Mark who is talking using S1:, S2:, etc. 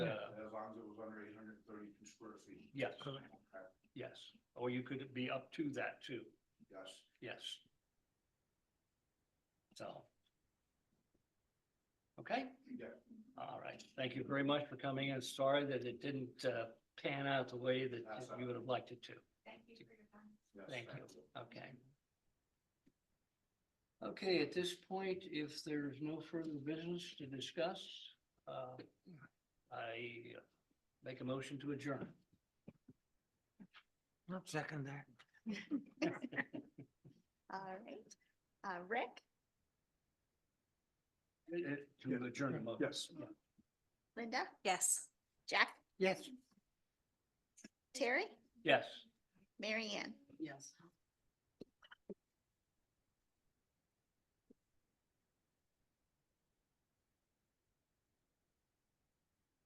S1: long as it was under eight hundred and thirty-two square feet.
S2: Yes.
S1: Okay,
S2: yes, or you could be up to that too,
S1: Yes,
S2: yes. So. Okay?
S1: yeah,
S2: All right, thank you very much for coming in. Sorry that it didn't uh, pan out the way that
S1: That's all
S2: you would have liked it to.
S3: Thank you for your time.
S1: yes.
S2: Thank you, okay. Okay, at this point, if there's no further business to discuss, uh, I make a motion to adjourn.
S4: I'll second that.
S3: All right, uh, Rick,
S2: Uh, To adjourn the motion.
S1: Yes.
S3: Linda,
S5: Yes.
S3: Jack,
S4: Yes.
S3: Terry,
S2: Yes.
S3: Mary Ann.
S5: Yes.